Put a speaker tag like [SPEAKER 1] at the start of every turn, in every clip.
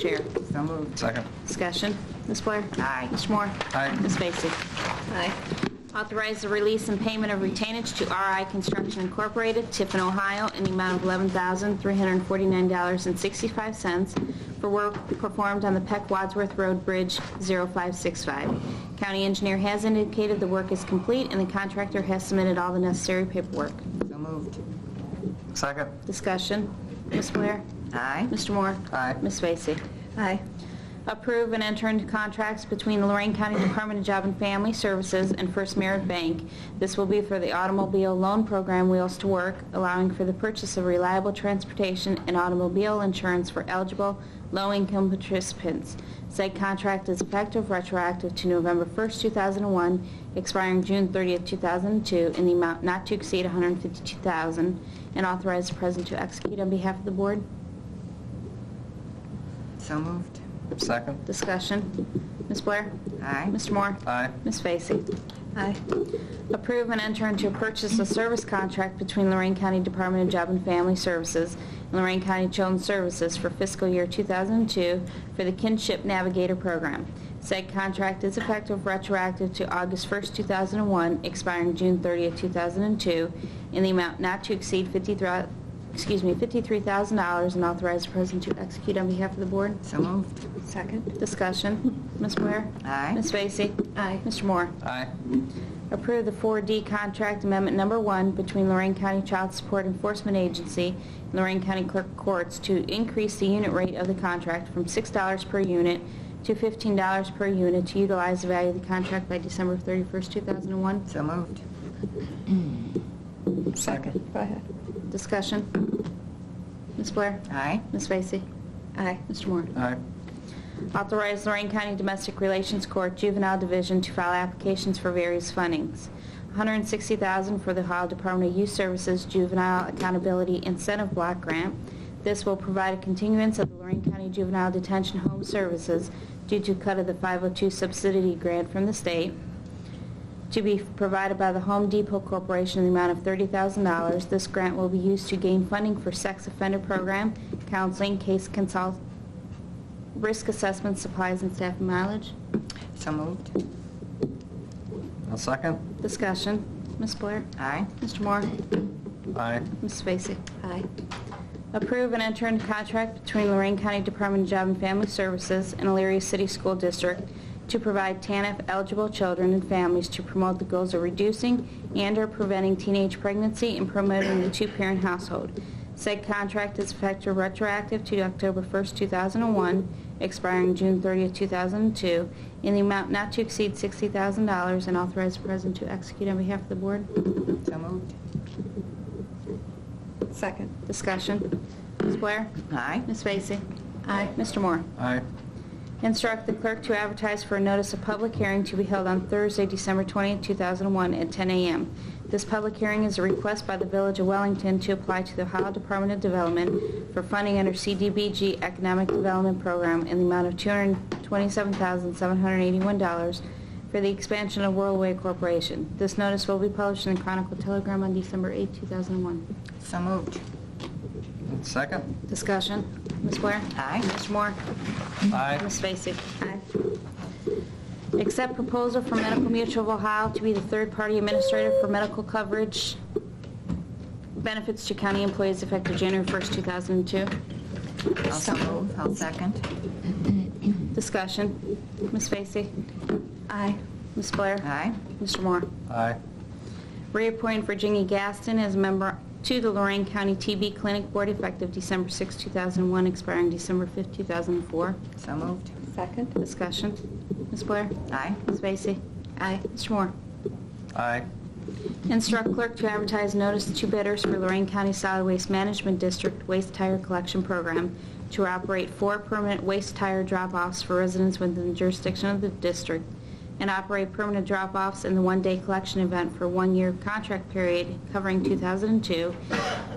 [SPEAKER 1] Chair.
[SPEAKER 2] So moved.
[SPEAKER 3] Second.
[SPEAKER 1] Discussion. Ms. Blair?
[SPEAKER 2] Aye.
[SPEAKER 1] Mr. Moore?
[SPEAKER 3] Aye.
[SPEAKER 1] Ms. Vacy?
[SPEAKER 4] Aye.
[SPEAKER 1] Authorize the release and payment of retainage to RI Construction Incorporated, Tiffin, Ohio, in the amount of $11,349.65 for work performed on the Peck Wadsworth Road Bridge 0565. County engineer has indicated the work is complete, and the contractor has submitted all the necessary paperwork.
[SPEAKER 2] So moved.
[SPEAKER 3] Second.
[SPEAKER 1] Discussion. Ms. Blair?
[SPEAKER 2] Aye.
[SPEAKER 1] Mr. Moore?
[SPEAKER 3] Aye.
[SPEAKER 1] Ms. Vacy?
[SPEAKER 4] Aye.
[SPEAKER 1] Approve and enter into contracts between the Lorraine County Department of Job and Family Services and First Merit Bank. This will be for the automobile loan program Wheels to Work, allowing for the purchase of reliable transportation and automobile insurance for eligible low-income participants. Said contract is effective retroactive to November 1st, 2001, expiring June 30th, 2002, in the amount not to exceed $152,000, and authorize the president to execute on behalf of the board.
[SPEAKER 2] So moved.
[SPEAKER 3] Second.
[SPEAKER 1] Discussion. Ms. Blair?
[SPEAKER 2] Aye.
[SPEAKER 1] Mr. Moore?
[SPEAKER 3] Aye.
[SPEAKER 1] Ms. Vacy?
[SPEAKER 4] Aye.
[SPEAKER 1] Approve and enter into a purchase of service contract between Lorraine County Department of Job and Family Services and Lorraine County Children's Services for fiscal year 2002 for the Kinship Navigator Program. Said contract is effective retroactive to August 1st, 2001, expiring June 30th, 2002, in the amount not to exceed 53, excuse me, $53,000 and authorize the president to execute on behalf of the board.
[SPEAKER 2] So moved.
[SPEAKER 4] Second.
[SPEAKER 1] Discussion. Ms. Blair?
[SPEAKER 2] Aye.
[SPEAKER 1] Ms. Vacy?
[SPEAKER 4] Aye.
[SPEAKER 1] Mr. Moore?
[SPEAKER 3] Aye.
[SPEAKER 1] Approve the 4D Contract Amendment Number One between Lorraine County Child Support Enforcement Agency and Lorraine County Clerk Courts to increase the unit rate of the contract from $6 per unit to $15 per unit to utilize the value of the contract by December 31st, 2001.
[SPEAKER 2] So moved.
[SPEAKER 4] Second. Go ahead.
[SPEAKER 1] Discussion. Ms. Blair?
[SPEAKER 2] Aye.
[SPEAKER 1] Ms. Vacy?
[SPEAKER 4] Aye.
[SPEAKER 1] Mr. Moore?
[SPEAKER 3] Aye.
[SPEAKER 1] Authorize Lorraine County Domestic Relations Court Juvenile Division to file applications for various fundings. $160,000 for the Ohio Department of Youth Services Juvenile Accountability Incentive Block Grant. This will provide a continuance of the Lorraine County Juvenile Detention Home Services due to cut of the 502 subsidy grant from the state to be provided by the Home Depot Corporation in the amount of $30,000. This grant will be used to gain funding for sex offender program, counseling, case consult, risk assessment, supplies, and staff mileage.
[SPEAKER 2] So moved.
[SPEAKER 3] I'll second.
[SPEAKER 1] Discussion. Ms. Blair?
[SPEAKER 2] Aye.
[SPEAKER 1] Mr. Moore?
[SPEAKER 3] Aye.
[SPEAKER 1] Ms. Vacy?
[SPEAKER 4] Aye.
[SPEAKER 1] Approve and enter into contract between Lorraine County Department of Job and Family Services and Elyria City School District to provide TANF-eligible children and families to promote the goals of reducing and/or preventing teenage pregnancy and promoting the two-parent household. Said contract is effective retroactive to October 1st, 2001, expiring June 30th, 2002, in the amount not to exceed $60,000, and authorize the president to execute on behalf of the board.
[SPEAKER 2] So moved.
[SPEAKER 4] Second.
[SPEAKER 1] Discussion. Ms. Blair?
[SPEAKER 2] Aye.
[SPEAKER 1] Ms. Vacy? Aye. Mr. Moore?
[SPEAKER 3] Aye.
[SPEAKER 1] Instruct the clerk to advertise for a notice of public hearing to be held on Thursday, December 20, 2001, at 10 a.m. This public hearing is a request by the Village of Wellington to apply to the Ohio Department of Development for funding under CDBG Economic Development Program in the amount of $227,781 for the expansion of Worldway Corporation. This notice will be published in the Chronicle Telegram on December 8, 2001.
[SPEAKER 2] So moved.
[SPEAKER 3] And Second.
[SPEAKER 1] Discussion. Ms. Blair?
[SPEAKER 2] Aye.
[SPEAKER 1] Mr. Moore?
[SPEAKER 3] Aye.
[SPEAKER 1] Ms. Vacy? Aye. Accept proposal for Medical Mutual of Ohio to be the third-party administrator for medical coverage benefits to county employees effective January 1st, 2002.
[SPEAKER 2] I'll so move. I'll second.
[SPEAKER 1] Discussion. Ms. Vacy?
[SPEAKER 4] Aye.
[SPEAKER 1] Ms. Blair?
[SPEAKER 2] Aye.
[SPEAKER 1] Mr. Moore?
[SPEAKER 3] Aye.
[SPEAKER 1] Reappoint Virginia Gaston as member to the Lorraine County TB Clinic Board effective December 6, 2001, expiring December 5, 2004.
[SPEAKER 2] So moved.
[SPEAKER 4] Second.
[SPEAKER 1] Discussion. Ms. Blair?
[SPEAKER 2] Aye.
[SPEAKER 1] Ms. Vacy?
[SPEAKER 4] Aye.
[SPEAKER 1] Mr. Moore?
[SPEAKER 3] Aye.
[SPEAKER 1] Instruct clerk to advertise notice to bidders for Lorraine County Solid Waste Management District Waste Tire Collection Program to operate four permanent waste tire drop-offs for residents within the jurisdiction of the district and operate permanent drop-offs in the one-day collection event for one-year contract period covering 2002,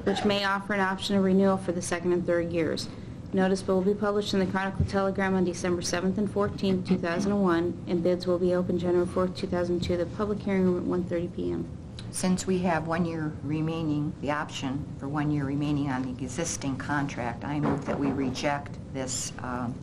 [SPEAKER 1] which may offer an option of renewal for the second and third years. Notice will be published in the Chronicle Telegram on December 7th and 14th, 2001, and bids will be open January 4th, 2002, the public hearing room at 1:30 p.m.
[SPEAKER 2] Since we have one year remaining, the option for one year remaining on the existing contract, I move that we reject this um,